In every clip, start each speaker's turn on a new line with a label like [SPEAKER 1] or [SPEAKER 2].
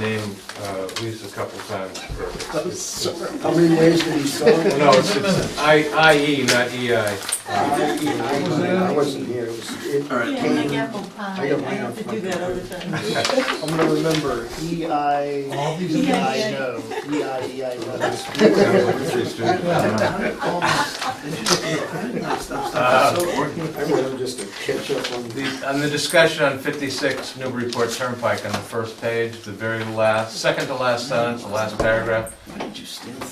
[SPEAKER 1] name, uh, used a couple times. for-
[SPEAKER 2] How many ways did he spell it?
[SPEAKER 1] No, it's, it's I, IE, not E EI.
[SPEAKER 2] I wasn't here, it was, it
[SPEAKER 3] All right.
[SPEAKER 4] Yeah, like
[SPEAKER 2] came,
[SPEAKER 4] apple pie,
[SPEAKER 2] I
[SPEAKER 4] I
[SPEAKER 2] got mine
[SPEAKER 4] have to
[SPEAKER 2] on
[SPEAKER 4] do that all the time.
[SPEAKER 2] I'm gonna remember, E I,
[SPEAKER 5] All these
[SPEAKER 2] E
[SPEAKER 5] are
[SPEAKER 2] I know, E I, E I know.
[SPEAKER 1] Sounds like a free student.
[SPEAKER 2] I remember just to catch up on the,
[SPEAKER 1] The- On the discussion on 56 Newburyport Turnpike, on the first page, the very last, second to last sentence, the last paragraph,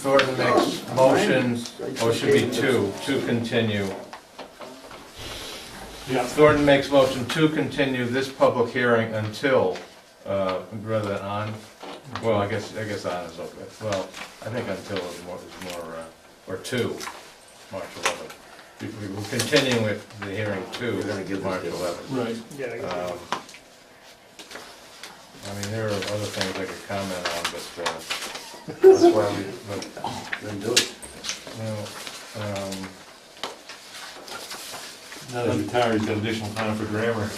[SPEAKER 1] Thornton makes motions, or it should be two, to continue.
[SPEAKER 5] Yeah.
[SPEAKER 1] Thornton makes motion to continue this public hearing until, uh, rather than on, well, I guess, I guess on is okay. Well, I think until is more, is more, uh, or to March 11th. We- we- We're continuing with the hearing to March 11th.
[SPEAKER 5] Right.
[SPEAKER 2] yeah,
[SPEAKER 1] Um, I mean, there are other things I could comment on, but, uh, that's why we, but,
[SPEAKER 2] then do it.
[SPEAKER 1] no, um,
[SPEAKER 5] Now that you're tired, he's got additional time for grammar.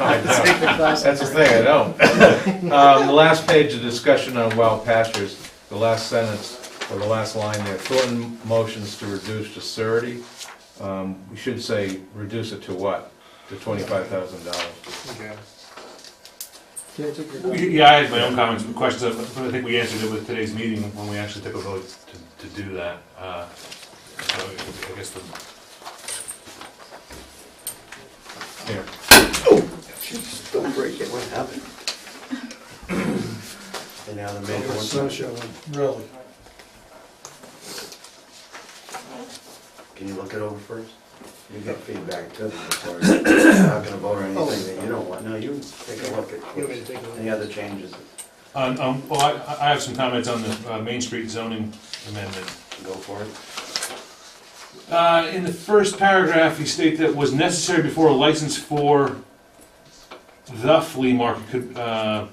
[SPEAKER 1] I don't. That's the thing, I don't. Um, The last page of discussion on wild pastures, the last sentence, or the last line there, Thornton motions to reduce to surety. Um, We should say, reduce it to what? To twenty-five thousand dollars.
[SPEAKER 2] Can I take your-
[SPEAKER 5] Yeah, I had my own comments, and questions, but I think we answered it with today's meeting when we actually took a vote to, to do that. Uh, So I guess the,
[SPEAKER 1] Here,
[SPEAKER 2] Jeez, Don't break it, what happened?
[SPEAKER 6] And now the
[SPEAKER 2] Oh,
[SPEAKER 6] major
[SPEAKER 2] it's
[SPEAKER 6] one,
[SPEAKER 2] snow shoveling.
[SPEAKER 7] Really?
[SPEAKER 6] can you look it over first? You get feedback too, before you're not gonna vote or anything that you don't want, no, you take a look at
[SPEAKER 2] Oh. You want me
[SPEAKER 6] it.
[SPEAKER 2] to take a look?
[SPEAKER 6] Any other changes,
[SPEAKER 5] um, um, well, I, I have some comments on the uh, Main Street zoning amendment.
[SPEAKER 6] go for it.
[SPEAKER 5] Uh, in the first paragraph, you state that was necessary before a license for the flea market could, uh,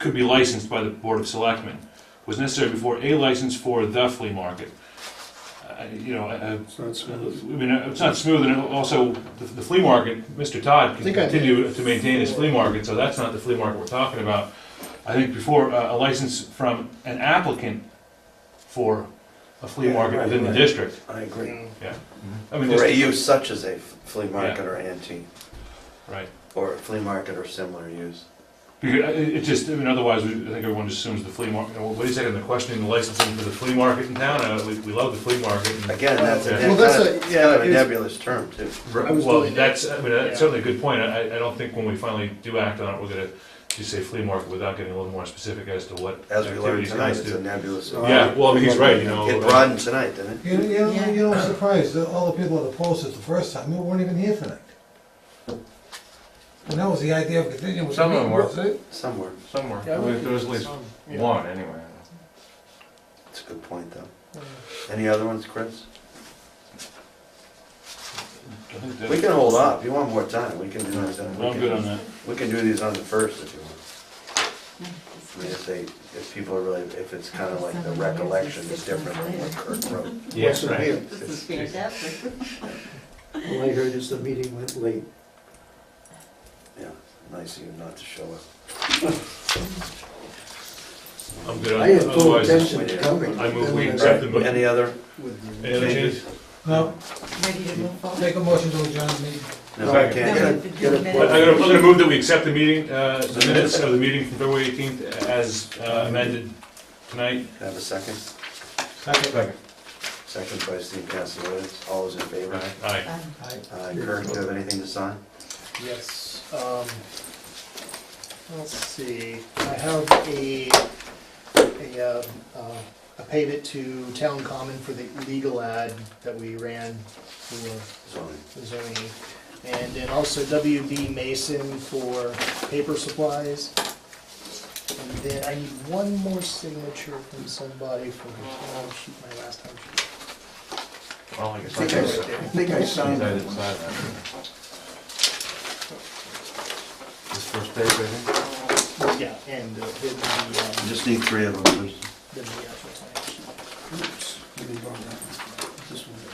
[SPEAKER 5] could be licensed by the Board of Selectmen. Was necessary before a license for the flea market. Uh, you know, I, I-
[SPEAKER 2] It's not
[SPEAKER 5] I
[SPEAKER 2] smooth.
[SPEAKER 5] mean, it's not smooth, and also, the the flea market, Mr. Todd
[SPEAKER 2] I
[SPEAKER 5] can
[SPEAKER 2] think I did.
[SPEAKER 5] continue to maintain his flea market, so that's not the flea market we're talking about. I think before, uh, a license from an applicant for a flea
[SPEAKER 6] Yeah,
[SPEAKER 5] market
[SPEAKER 6] right,
[SPEAKER 5] within the
[SPEAKER 6] right.
[SPEAKER 5] district.
[SPEAKER 6] I agree.
[SPEAKER 5] I mean,
[SPEAKER 6] For a
[SPEAKER 5] just,
[SPEAKER 6] use such as a f- flea market or antique,
[SPEAKER 5] right.
[SPEAKER 6] or a flea market or similar use.
[SPEAKER 5] Because uh, it it just, I mean, otherwise, we- I think everyone just assumes the flea market, well, wait a second, they're questioning the licensing for the flea market in town, uh, we, we love the flea market. and-
[SPEAKER 6] Again, that's a,
[SPEAKER 5] Well,
[SPEAKER 6] neb-
[SPEAKER 2] that's a-
[SPEAKER 6] kind of-
[SPEAKER 2] yeah,
[SPEAKER 6] kind of a
[SPEAKER 2] it's-
[SPEAKER 6] nebulous term too.
[SPEAKER 2] I was
[SPEAKER 5] Well,
[SPEAKER 2] doing it.
[SPEAKER 5] that's, I mean,
[SPEAKER 2] Yeah.
[SPEAKER 5] that's certainly a good point, I, I- I don't think when we finally do act on it, we're gonna just say flea market without getting a little more specific as to what
[SPEAKER 6] As we learned
[SPEAKER 5] activities
[SPEAKER 6] tonight,
[SPEAKER 5] guys
[SPEAKER 6] it's a
[SPEAKER 5] do.
[SPEAKER 6] nebulous.
[SPEAKER 5] Yeah, well, I mean, he's right, you know.
[SPEAKER 6] It
[SPEAKER 5] uh,
[SPEAKER 6] broadened tonight, didn't it?
[SPEAKER 7] You, you know, you know, I'm surprised that all the people that opposed it the first time, we weren't even here tonight. And that was the idea of continuing with the
[SPEAKER 1] Some of them
[SPEAKER 7] meeting,
[SPEAKER 1] were.
[SPEAKER 7] was it?
[SPEAKER 6] Somewhere,
[SPEAKER 1] somewhere, there was there was at least one, anyway.
[SPEAKER 6] it's a good point though. Any other ones, Chris?
[SPEAKER 5] I think
[SPEAKER 6] We
[SPEAKER 5] that-
[SPEAKER 6] can hold off, if you want more time, we can do this. we
[SPEAKER 5] I'm
[SPEAKER 6] can-
[SPEAKER 5] uh, good on that.
[SPEAKER 6] We can do these on the first if you want. I mean, if they, if people are really, if it's kind of like the recollection is different than what Kirk wrote.
[SPEAKER 2] What's in here?
[SPEAKER 4] This is fantastic.
[SPEAKER 2] All I heard is the meeting went late.
[SPEAKER 6] Yeah, nice of you not to show up.
[SPEAKER 5] I'm good on
[SPEAKER 2] I had
[SPEAKER 5] that,
[SPEAKER 2] full
[SPEAKER 5] otherwise,
[SPEAKER 2] intention of coming.
[SPEAKER 5] I move we
[SPEAKER 2] Then
[SPEAKER 5] accept the
[SPEAKER 2] I-
[SPEAKER 5] mo-
[SPEAKER 6] Any other?
[SPEAKER 2] with the-
[SPEAKER 5] any other changes?
[SPEAKER 7] No,
[SPEAKER 4] Ready to move forward.
[SPEAKER 7] take a motion to adjourn the meeting.
[SPEAKER 6] No,
[SPEAKER 1] Second.
[SPEAKER 6] I can't.
[SPEAKER 4] Now we
[SPEAKER 6] get
[SPEAKER 4] have
[SPEAKER 6] it.
[SPEAKER 4] to do
[SPEAKER 2] get a
[SPEAKER 4] the
[SPEAKER 5] Well,
[SPEAKER 2] vote.
[SPEAKER 4] minutes.
[SPEAKER 5] I'm gonna, I'm gonna move that we accept the meeting, uh, the minutes of the meeting from February eighteenth as uh, amended tonight.
[SPEAKER 6] Have a second?
[SPEAKER 1] Second.
[SPEAKER 6] Second by Steve Castellowitz, all those in favor?
[SPEAKER 5] Aye.
[SPEAKER 4] Um,
[SPEAKER 7] Aye.
[SPEAKER 6] Uh, Kirk, do you have anything to sign?
[SPEAKER 2] Yes, um, let's see, I have a, a, um, uh, a payment to Town Common for the legal ad that we ran for
[SPEAKER 6] Zoning.
[SPEAKER 2] zoning. And then also WB Mason for paper supplies. And then I need one more signature from somebody for, oh, shoot, my last time.
[SPEAKER 1] Well, I guess
[SPEAKER 6] I
[SPEAKER 1] I
[SPEAKER 6] think I-
[SPEAKER 1] didn't
[SPEAKER 6] I think I
[SPEAKER 1] sign
[SPEAKER 6] signed
[SPEAKER 1] that.
[SPEAKER 6] that
[SPEAKER 1] This
[SPEAKER 6] one.
[SPEAKER 1] first page, I think.
[SPEAKER 2] Yeah, and uh, then the, um,
[SPEAKER 6] Just need three of them, please.
[SPEAKER 2] then the actual signature.
[SPEAKER 7] This one.